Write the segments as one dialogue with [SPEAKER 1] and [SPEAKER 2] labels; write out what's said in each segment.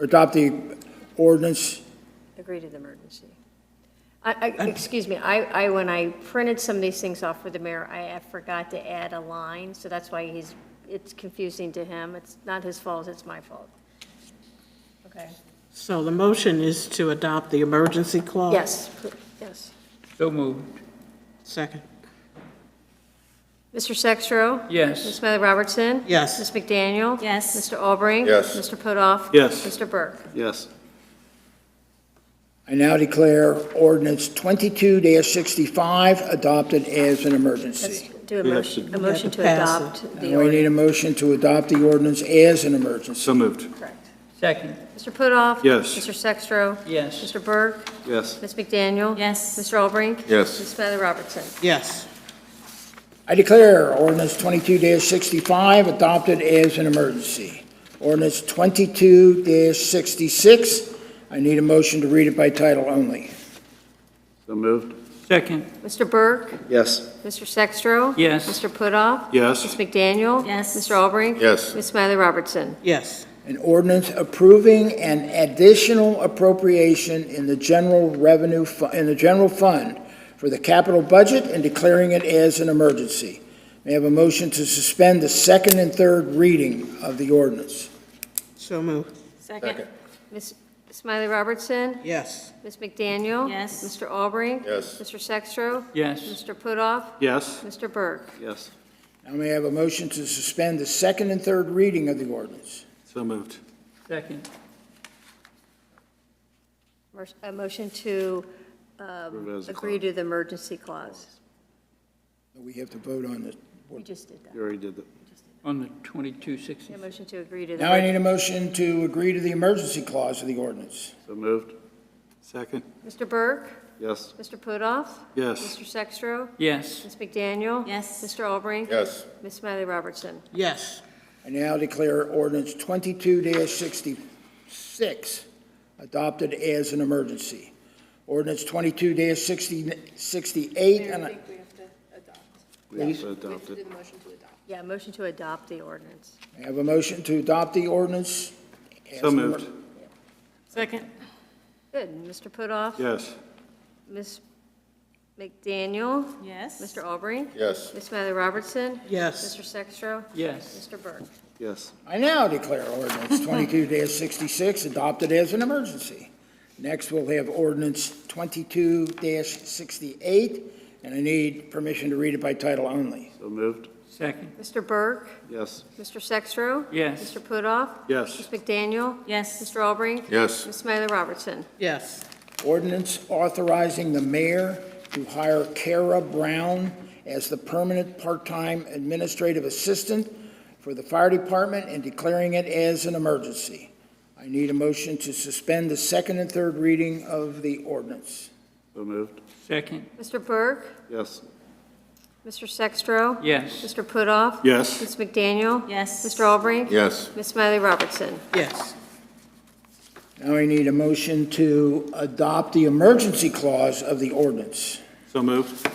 [SPEAKER 1] adopt the ordinance.
[SPEAKER 2] Agree to the emergency. I, I, excuse me, I, I, when I printed some of these things off for the mayor, I I forgot to add a line, so that's why he's, it's confusing to him. It's not his fault, it's my fault. Okay.
[SPEAKER 3] So the motion is to adopt the emergency clause?
[SPEAKER 2] Yes, pl- yes.
[SPEAKER 4] So moved.
[SPEAKER 3] Second.
[SPEAKER 2] Mr. Sextro? Ms.
[SPEAKER 4] Yes.
[SPEAKER 2] Smiley Robertson?
[SPEAKER 3] Yes.
[SPEAKER 2] Ms. McDaniel?
[SPEAKER 5] Yes.
[SPEAKER 2] Mr. Albrecht?
[SPEAKER 6] Yes.
[SPEAKER 2] Mr. Putoff?
[SPEAKER 7] Yes.
[SPEAKER 2] Mr. Burke?
[SPEAKER 7] Yes.
[SPEAKER 1] I now declare ordinance twenty-two sixty-five adopted as an
[SPEAKER 2] Let's
[SPEAKER 1] emergency.
[SPEAKER 2] do a
[SPEAKER 7] We have
[SPEAKER 2] motion,
[SPEAKER 7] to-
[SPEAKER 2] a motion to
[SPEAKER 3] We have to pass
[SPEAKER 1] Now
[SPEAKER 2] adopt the
[SPEAKER 1] we need
[SPEAKER 2] ordinance.
[SPEAKER 1] a motion to adopt the ordinance as an emergency.
[SPEAKER 7] So moved.
[SPEAKER 2] Correct.
[SPEAKER 4] Second.
[SPEAKER 2] Mr. Putoff?
[SPEAKER 7] Yes.
[SPEAKER 2] Mr. Sextro?
[SPEAKER 4] Yes.
[SPEAKER 2] Mr. Burke?
[SPEAKER 7] Yes.
[SPEAKER 2] Ms. McDaniel?
[SPEAKER 5] Yes.
[SPEAKER 2] Mr. Albrink?
[SPEAKER 6] Yes.
[SPEAKER 2] Ms. Smiley Robertson?
[SPEAKER 3] Yes.
[SPEAKER 1] I declare ordinance twenty-two sixty-five adopted as an emergency. Ordinance twenty-two sixty-six, I need a motion to read it by title only.
[SPEAKER 7] So moved.
[SPEAKER 4] Second.
[SPEAKER 2] Mr. Burke?
[SPEAKER 7] Yes.
[SPEAKER 2] Mr. Sextro?
[SPEAKER 4] Yes.
[SPEAKER 2] Mr. Putoff? Ms.
[SPEAKER 7] Yes.
[SPEAKER 2] McDaniel?
[SPEAKER 5] Yes.
[SPEAKER 2] Mr. Albrink?
[SPEAKER 6] Yes.
[SPEAKER 2] Ms. Smiley Robertson?
[SPEAKER 3] Yes.
[SPEAKER 1] An ordinance approving an additional appropriation in the general revenue, fu- in the general fund for the capital budget and declaring it as an emergency. May I have a motion to suspend the second and third reading of the ordinance?
[SPEAKER 3] So moved.
[SPEAKER 5] Second.
[SPEAKER 2] Ms. Smiley Robertson?
[SPEAKER 3] Yes.
[SPEAKER 2] Ms. McDaniel?
[SPEAKER 5] Yes.
[SPEAKER 2] Mr. Albrink?
[SPEAKER 6] Yes.
[SPEAKER 2] Mr. Sextro?
[SPEAKER 4] Yes.
[SPEAKER 2] Mr. Putoff?
[SPEAKER 7] Yes.
[SPEAKER 2] Mr. Burke?
[SPEAKER 7] Yes.
[SPEAKER 1] Now may I have a motion to suspend the second and third reading of the ordinance?
[SPEAKER 7] So moved.
[SPEAKER 4] Second.
[SPEAKER 2] Mer- A motion to um,
[SPEAKER 7] Approve as a
[SPEAKER 2] agree to the emergency clause.
[SPEAKER 1] We have to vote on this.
[SPEAKER 2] We just did that.
[SPEAKER 7] You already did that.
[SPEAKER 4] On the twenty-two sixty.
[SPEAKER 2] A motion to agree to the.
[SPEAKER 1] Now I need a motion to agree to the emergency clause of the ordinance.
[SPEAKER 7] So moved. Second.
[SPEAKER 2] Mr. Burke?
[SPEAKER 7] Yes.
[SPEAKER 2] Mr. Putoff?
[SPEAKER 7] Yes.
[SPEAKER 2] Mr. Sextro?
[SPEAKER 4] Yes.
[SPEAKER 2] Ms. McDaniel?
[SPEAKER 5] Yes.
[SPEAKER 2] Mr. Albrink?
[SPEAKER 6] Yes.
[SPEAKER 2] Ms. Smiley Robertson?
[SPEAKER 3] Yes.
[SPEAKER 1] I now declare ordinance twenty-two sixty-six adopted as an emergency. Ordinance twenty-two 68 and I,
[SPEAKER 7] We have to adopt it.
[SPEAKER 2] Yeah, a motion to adopt the ordinance.
[SPEAKER 1] I have a motion to adopt the ordinance. as
[SPEAKER 7] So
[SPEAKER 1] an
[SPEAKER 7] moved.
[SPEAKER 1] emer-
[SPEAKER 5] Second.
[SPEAKER 2] Good. Mr. Putoff?
[SPEAKER 7] Yes.
[SPEAKER 2] Ms. McDaniel?
[SPEAKER 5] Yes.
[SPEAKER 2] Mr. Albrink?
[SPEAKER 6] Yes.
[SPEAKER 2] Ms. Smiley Robertson?
[SPEAKER 3] Yes.
[SPEAKER 2] Mr. Sextro?
[SPEAKER 4] Yes.
[SPEAKER 2] Mr. Burke?
[SPEAKER 7] Yes.
[SPEAKER 1] I now declare ordinance twenty-two sixty-six adopted as an emergency. Next, we'll have ordinance twenty-two sixty-eight, and I need permission to read it by title only.
[SPEAKER 7] So moved.
[SPEAKER 4] Second.
[SPEAKER 2] Mr. Burke?
[SPEAKER 7] Yes.
[SPEAKER 2] Mr. Sextro?
[SPEAKER 4] Yes.
[SPEAKER 2] Mr. Putoff?
[SPEAKER 7] Yes.
[SPEAKER 2] Ms. McDaniel?
[SPEAKER 5] Yes.
[SPEAKER 2] Mr. Albrink?
[SPEAKER 6] Yes.
[SPEAKER 2] Ms. Smiley Robertson?
[SPEAKER 3] Yes.
[SPEAKER 1] Ordinance authorizing the mayor to hire Kara Brown as the permanent part-time administrative assistant for the fire department and declaring it as an emergency. I need a motion to suspend the second and third reading of the ordinance.
[SPEAKER 7] So moved.
[SPEAKER 4] Second.
[SPEAKER 2] Mr. Burke?
[SPEAKER 7] Yes.
[SPEAKER 2] Mr. Sextro?
[SPEAKER 4] Yes.
[SPEAKER 2] Mr. Putoff?
[SPEAKER 7] Yes.
[SPEAKER 2] Ms. McDaniel?
[SPEAKER 5] Yes.
[SPEAKER 2] Mr. Albrink?
[SPEAKER 6] Yes.
[SPEAKER 2] Ms. Smiley Robertson?
[SPEAKER 3] Yes.
[SPEAKER 1] Now I need a motion to adopt the emergency clause of the ordinance.
[SPEAKER 7] So moved.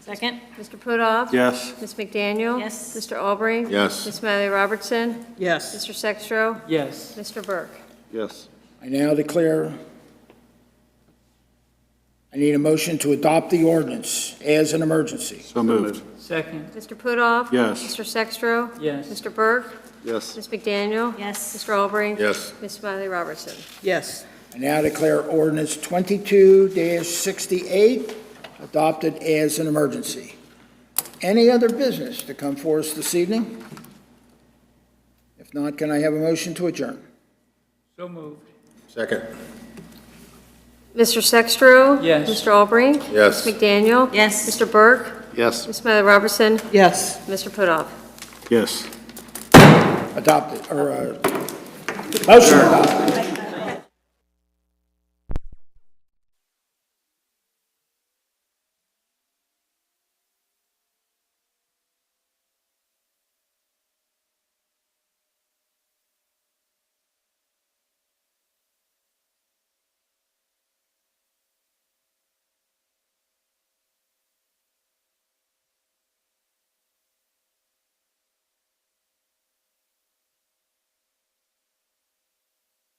[SPEAKER 5] Second.
[SPEAKER 2] Mr. Putoff?
[SPEAKER 7] Yes.
[SPEAKER 2] Ms. McDaniel?
[SPEAKER 5] Yes.
[SPEAKER 2] Mr. Albrink?
[SPEAKER 6] Yes.
[SPEAKER 2] Ms. Smiley Robertson?
[SPEAKER 3] Yes.
[SPEAKER 2] Mr. Sextro?
[SPEAKER 4] Yes.
[SPEAKER 2] Mr. Burke?
[SPEAKER 7] Yes.
[SPEAKER 1] I now declare, I need a motion to adopt the ordinance as an emergency.
[SPEAKER 7] So moved.
[SPEAKER 4] Second.
[SPEAKER 2] Mr. Putoff?
[SPEAKER 7] Yes.
[SPEAKER 2] Mr. Sextro?
[SPEAKER 4] Yes.
[SPEAKER 2] Mr. Burke?
[SPEAKER 7] Yes.
[SPEAKER 2] Ms. McDaniel?
[SPEAKER 5] Yes.
[SPEAKER 2] Mr. Albrink?
[SPEAKER 6] Yes.
[SPEAKER 2] Ms. Smiley Robertson?
[SPEAKER 3] Yes.
[SPEAKER 1] I now declare ordinance twenty-two sixty-eight adopted as an emergency. Any other business to come for us this evening? If not, can I have a motion to adjourn?
[SPEAKER 4] So moved.
[SPEAKER 6] Second.
[SPEAKER 2] Mr. Sextro?
[SPEAKER 4] Yes.
[SPEAKER 2] Mr. Albrink?
[SPEAKER 6] Yes.
[SPEAKER 2] Ms. McDaniel?
[SPEAKER 5] Yes.
[SPEAKER 2] Mr. Burke?
[SPEAKER 7] Yes.
[SPEAKER 2] Ms. Smiley Robertson?
[SPEAKER 3] Yes.
[SPEAKER 2] Mr. Putoff?
[SPEAKER 7] Yes.
[SPEAKER 1] Adopted, or, uh, motion adopted.